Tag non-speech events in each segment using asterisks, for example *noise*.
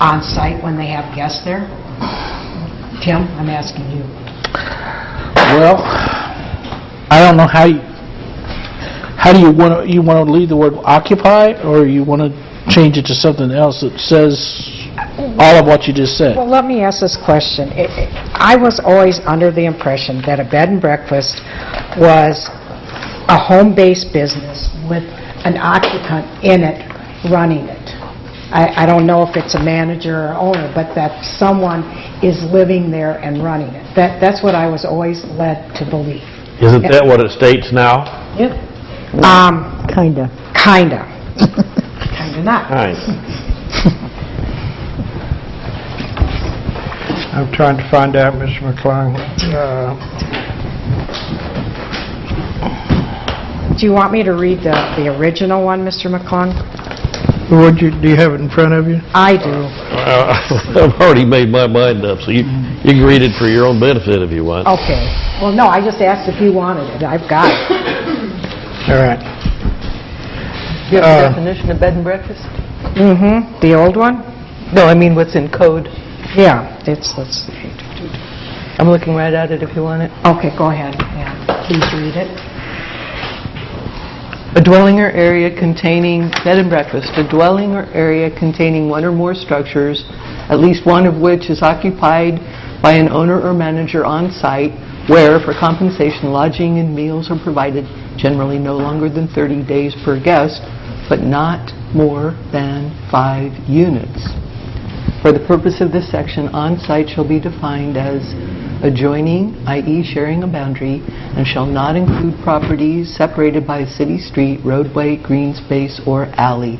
on-site when they have guests there? Tim, I'm asking you. Well, I don't know how, you- how do you want to, you want to leave the word occupy, or you want to change it to something else that says all of what you just said? Well, let me ask this question. It- it- I was always under the impression that a bed and breakfast was a home-based business with an occupant in it running it. I I don't know if it's a manager or owner, but that someone is living there and running it. That That's what I was always led to believe. Isn't that what it states now? Yep. Kinda. Kinda. Um, Kinda. Kinda not. *laughs* Right. I'm trying to find out, Mr. McClung. Uh, Do you want me to read the the original one, Mr. McClung? Would you, do you have it in front of you? I do. I've already made my mind up, so you, you can read it for your own benefit if you want. Okay. Well, no, I just asked if you wanted it. I've got it. All right. Do you have a Uh, definition of bed and breakfast? *coughs* Mm-hmm. The old one? No, I mean what's in code. Yeah, it's, let's see. I'm looking right at it if you want it. Okay, go ahead. Yeah, please read it. A dwelling or area containing, bed and breakfast, a dwelling or area containing one or more structures, at least one of which is occupied by an owner or manager on site, where for compensation lodging and meals are provided, generally no longer than 30 days per guest, but not more than five units. For the purpose of this section, on-site shall be defined as adjoining, i.e. sharing a boundary, and shall not include properties separated by a city street, roadway, green space, or alley.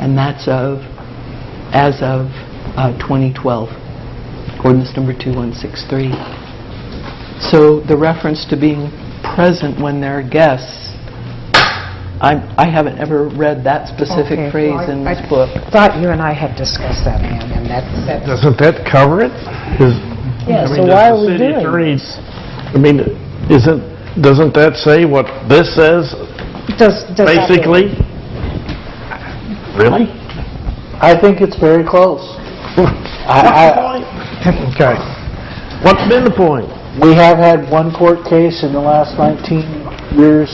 And that's of, as of uh, 2012, ordinance number 2163. So the reference to being present when there are guests, I I haven't ever read Okay, that specific well, I- phrase in I- this book. Thought you and I had discussed that, Ann, and that, that's... Doesn't that cover it? Yeah, so why are we City doing? attorneys, I mean, isn't, doesn't that say what this says, Does, does... that- basically? Really? *laughs* I think it's very close. I, Okay. What's been the point? I, we have had one court case in the last 19 years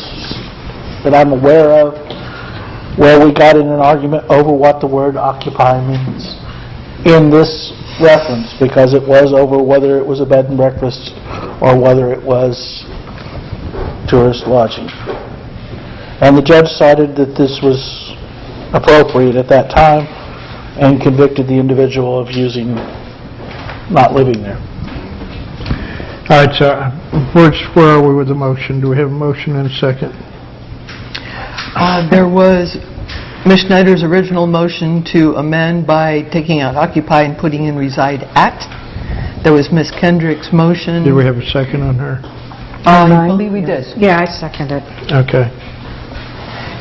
that I'm aware of where we got in an argument over what the word occupy means in this reference, because it was over whether it was a bed and breakfast or whether it was tourist lodging. And the judge cited that this was appropriate at that time and convicted the individual of using, not living there. All right, so where's, where are we with the motion? Do we have a motion and a second? Uh, There was Ms. Schneider's original motion to amend by taking out occupy and putting in reside at. There was Ms. Kendrick's motion. Do we have a second on her? Um, I believe we did. Yeah, I second it. Okay.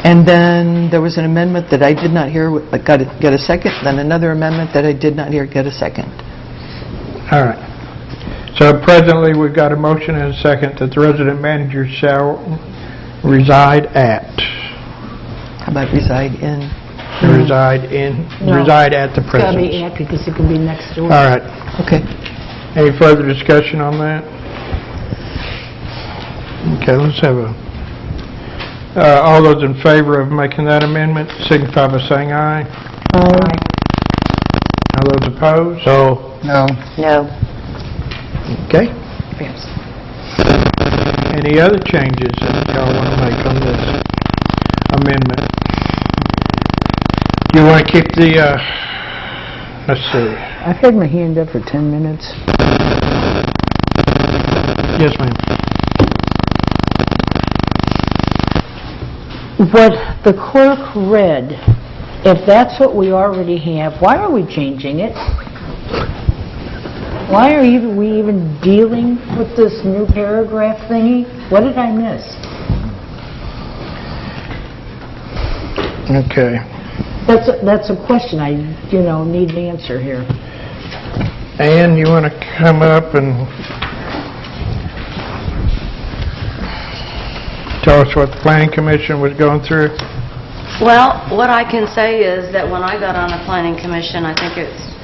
And then there was an amendment that I did not hear, but got a- get a second, then another amendment that I did not hear get a second. All right. So presently, we've got a motion and a second that the resident manager shall reside at, How about reside in? reside in, reside at the presence. at, because it can be next door. All right. Okay. Any further discussion on that? Okay, let's have a, uh, all those in favor of making that amendment signify by saying aye. All those opposed? So, No. No. Okay. Any other changes that y'all want to make on this amendment? You want to keep the, uh, let's see. I've had my hand up for 10 minutes. Yes, ma'am. What the clerk read, if that's what we already have, why are we changing it? Why are even- we even dealing with this new paragraph thingy? What did I miss? Okay. That's, a- that's a question I, you know, need an answer here. Ann, you want to come up and tell us what the planning commission was going through? Well, what I can say is that when I got on the planning commission, I think it's